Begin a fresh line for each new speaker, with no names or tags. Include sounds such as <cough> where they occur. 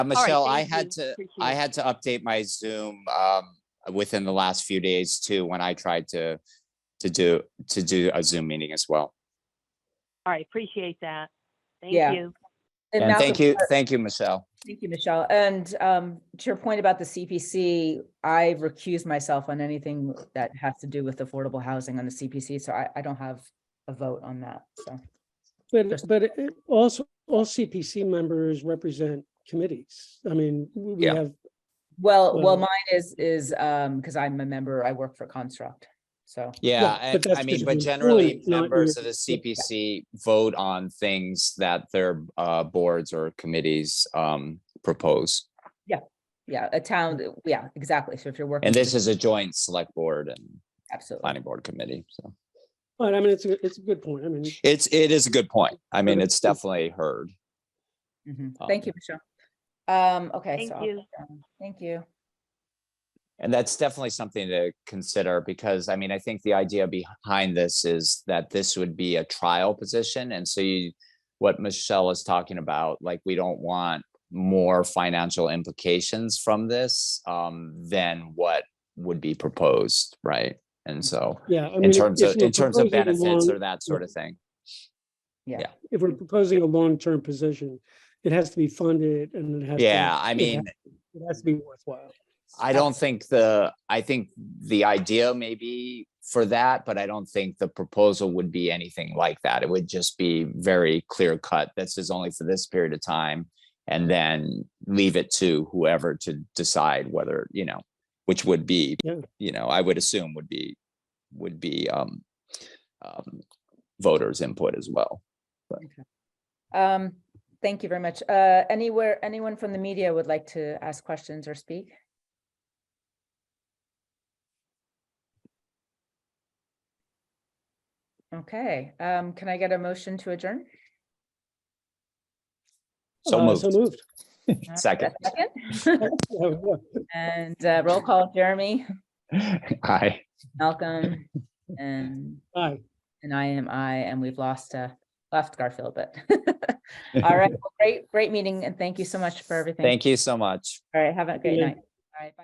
Uh, Michelle, I
thank you.
had to, I
Appreciate it.
had to update my Zoom um, within the last few days too, when I tried to, to do, to do a Zoom meeting as well.
All right, appreciate that. Thank
Yeah.
you.
And
And
Malcolm,
thank you, thank you, Michelle.
Thank you, Michelle. And um, to your point about the CPC, I recuse myself on anything that has to do with affordable housing on the CPC, so I, I don't have a vote on that, so.
But,
Just-
but it- it also, all CPC members represent committees. I mean, we we
Yeah.
have,
Well, well,
Well-
mine is, is, um, because I'm a member, I work for Construct, so.
Yeah,
Yeah,
and
but that's
I mean,
just
but
your
generally
point, not
members of
your-
the CPC vote on things that their uh, boards or committees um, propose.
Yeah, a town,
Mm.
yeah, exactly. So if you're working.
And
for-
this is a joint select board and
Absolutely.
planning board committee, so.
but I mean, it's, a it's a good point. I mean,
It's, it is a good point. I mean,
But
it's
it's-
definitely heard.
Mhm.
Um,
Thank you, Michelle. Um, okay.
Thank
so I'll-
you.
Thank you.
And that's definitely something to consider because I mean, I think the idea behind this is that this would be a trial position. And so you, what Michelle is talking about, like, we don't want more financial implications from this um, than what would be proposed, right? And so
yeah. I mean,
in
if-
terms
if
of,
we're
in terms of
proposing a
benefits
long-
or that sort of thing.
Yeah.
Yeah.
If we're proposing a long-term position, it has to be funded and it has. to-
Yeah, I
it
mean,
has- It has to be worthwhile.
I don't think the, I think the idea may be for that, but I don't think the proposal would be anything like that. It would just be very clear cut. This is only for this period of time. And then leave it to whoever to decide whether, you know, which would be,
Yeah.
you know, I would assume would be, would be, um, um, voters input as well.
Um, thank you very much. Uh, anywhere, anyone from the media would like to ask questions or speak? Okay, um, can I get a motion to adjourn?
So
Uh,
moved.
So moved.
Uh, a
Second.
second? <laughs>
Yeah, yeah. <laughs>
And uh, roll call, Jeremy,
<laughs> Aye.
Malcolm, and
Aye.
And I am I, and we've lost, uh, left Garfield, but. <laughs> All right, well, great, great meeting, and thank you so much for
<laughs>
everything.
Thank you so much.
All right, have a great
Yeah.
night. Bye.